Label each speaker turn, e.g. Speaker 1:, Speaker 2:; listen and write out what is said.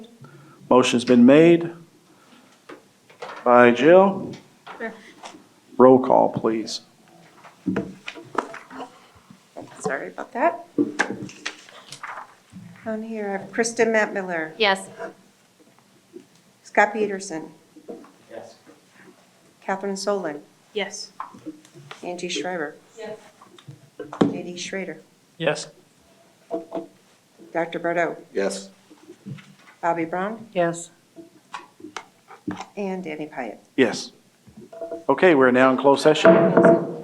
Speaker 1: Motion's been made by Jill.
Speaker 2: Sure.
Speaker 1: Roll call, please.
Speaker 2: Sorry about that. On here, I have Kristen Matt Miller,
Speaker 3: Yes.
Speaker 2: Scott Peterson,
Speaker 4: Yes.
Speaker 2: Catherine Solon,
Speaker 3: Yes.
Speaker 2: Angie Schreiber.
Speaker 3: Yes.
Speaker 2: J.D. Schrader,
Speaker 4: Yes.
Speaker 2: Dr. Bordeaux,
Speaker 5: Yes.
Speaker 2: Bobby Brown,
Speaker 3: Yes.
Speaker 2: and Danny Pyatt.
Speaker 1: Yes. Okay, we're now in closed session.